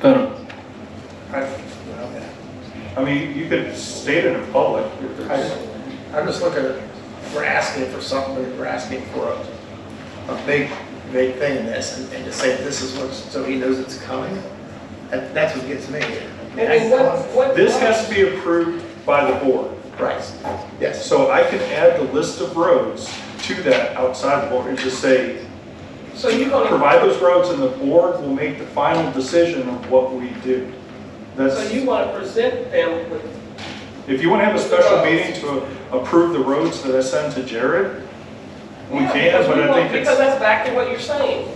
But I I mean, you could state it in public. if there's- I- I'm just looking, at we're asking for something, but we're asking for a, a big, big thing in this, and- and to say this is what, so he knows it's coming, that, that's what gets me. I mean, what, what? This has to be approved by the board. Right, yes, So I can add the list of roads to that outside the board and just say, So you're gonna, provide those roads and the board will make the final decision of what we do. so That's, you wanna present them with, if you want to have a special meeting to approve the roads that I send to Jared, we Yeah, can, because but we I want- think Because it's, that's back to what you're saying.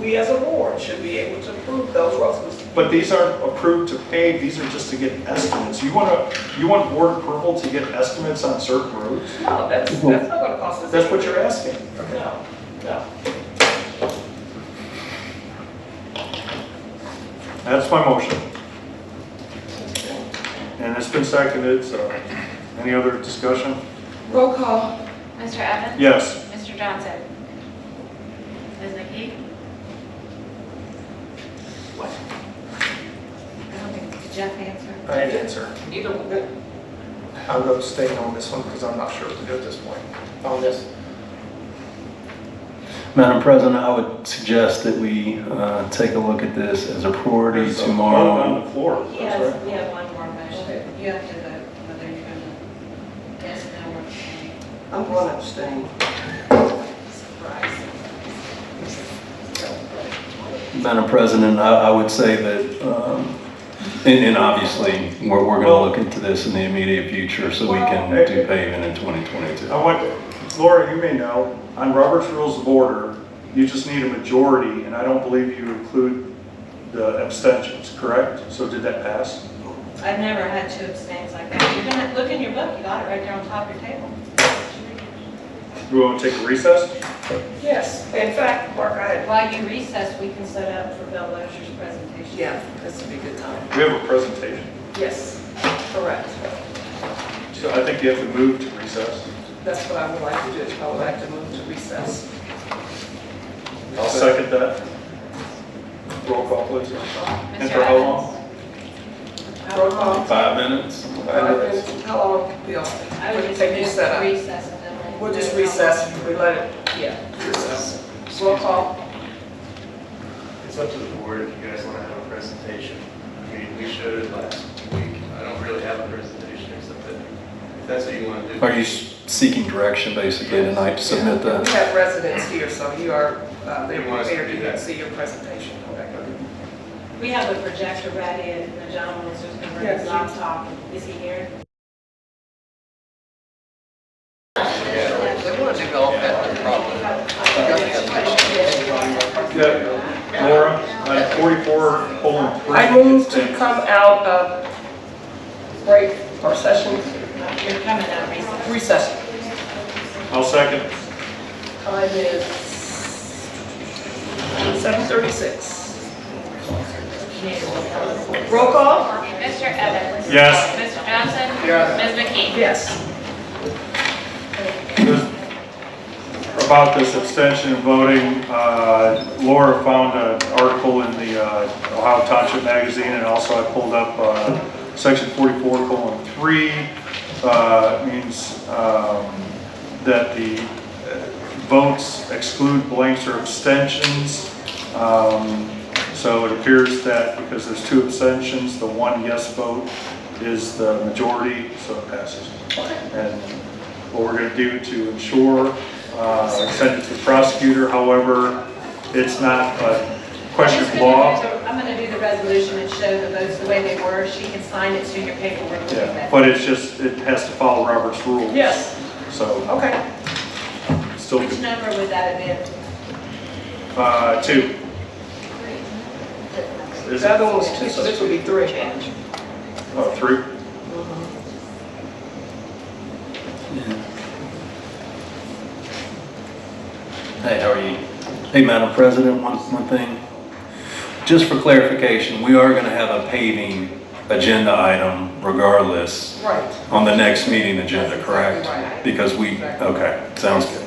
We as a board should be able to approve those roads. but these aren't approved to pay, these are just to get estimates. You want to, you want board approval to get estimates on certain roads? No, that's, that's not gonna cost us. That's what you're asking. anything. No, no. That's my motion. And it's been seconded, so any other discussion? Roll call. Mr. Evans? Yes. Mr. Johnson? Ms. McKee? I don't think did Jeff answered. I had an answer. Either, one. I'm abstaining on this one because I'm not sure what to do at this point, on this. Madam President, I would suggest that we uh, take a look at this as a priority There's a vote tomorrow. On the floor, He that's has, right. we have one more motion. You have to vote whether you're going to, yes, no, or abstain. I'm going to abstain. Madam President, I I would say that, um, and and obviously, we're going to Well- look into this in the immediate future so we can Well- eh, do paving in 2022. I want, Laura, you may know, on Robert's Rules of Order, you just need a majority, and I don't believe you include the abstentions, correct? So did that pass? I've never had two abstains like that. You're going to, look in your book, you got it right there on top of your table. Do we want to take a recess? yes, in fact, Mark, I had, While you recess, we can set up for Bill Lozier's presentation. Yeah, this would be a good time. We have a presentation, yes, correct. so I think you have to move to recess. That's what I would like to do. I would like to move to recess. I'll second that. Roll call, please. Mr. And for how long? Evans? Roll call. Five minutes? Five minutes. How long, Bill? I What do would you just think you set up? recess and then. We'll just recess, we let it, Yeah. recess. Roll call. It's up to the board if you guys want to have a presentation. I mean, we showed it last week. I don't really have a presentation except that if that's what you want to do. Are you s- seeking direction basically tonight to submit We that? have residents here, so you are, uh, they're You want us to prepared do to that? see your presentation. Okay. We have a projector ready and the gentleman was just going to bring Yes, his he- laptop. Is he here? They want to go Yeah, Laura, on 44, colon 3. I move to come out of break or session You're coming out of recess. recession. I'll second. Time is seven thirty-six. Roll call? Mr. Evans? Yes. Mr. Johnson? Yes. Ms. McKee? Yes. About this abstention voting, uh, Laura found an article in the uh, Ohio Township Magazine, and also I pulled up uh, section 44 colon 3, uh, means um, that the uh, votes exclude blanks or abstentions. Um, So it appears that because there's two abstentions, the one yes vote is the majority, so it passes. And what we're going to do to ensure, uh, send it to the prosecutor, however, it's not a question of law. I'm going to do the resolution and show the votes the way they were. She can sign it to your paperwork. when you Yeah, get back. but it's just, it has to follow Robert's rules. Yes, So, okay. still, Which number would that have been? uh, two. Is The it, other one was two, so this would be three. Change. oh, three? Hey, how are you? Hey, Madam President, one, one thing. Just for clarification, we are going to have a paving agenda item regardless Right. on the next meeting agenda, That's exactly correct? right. Because we, Exactly. okay, sounds good.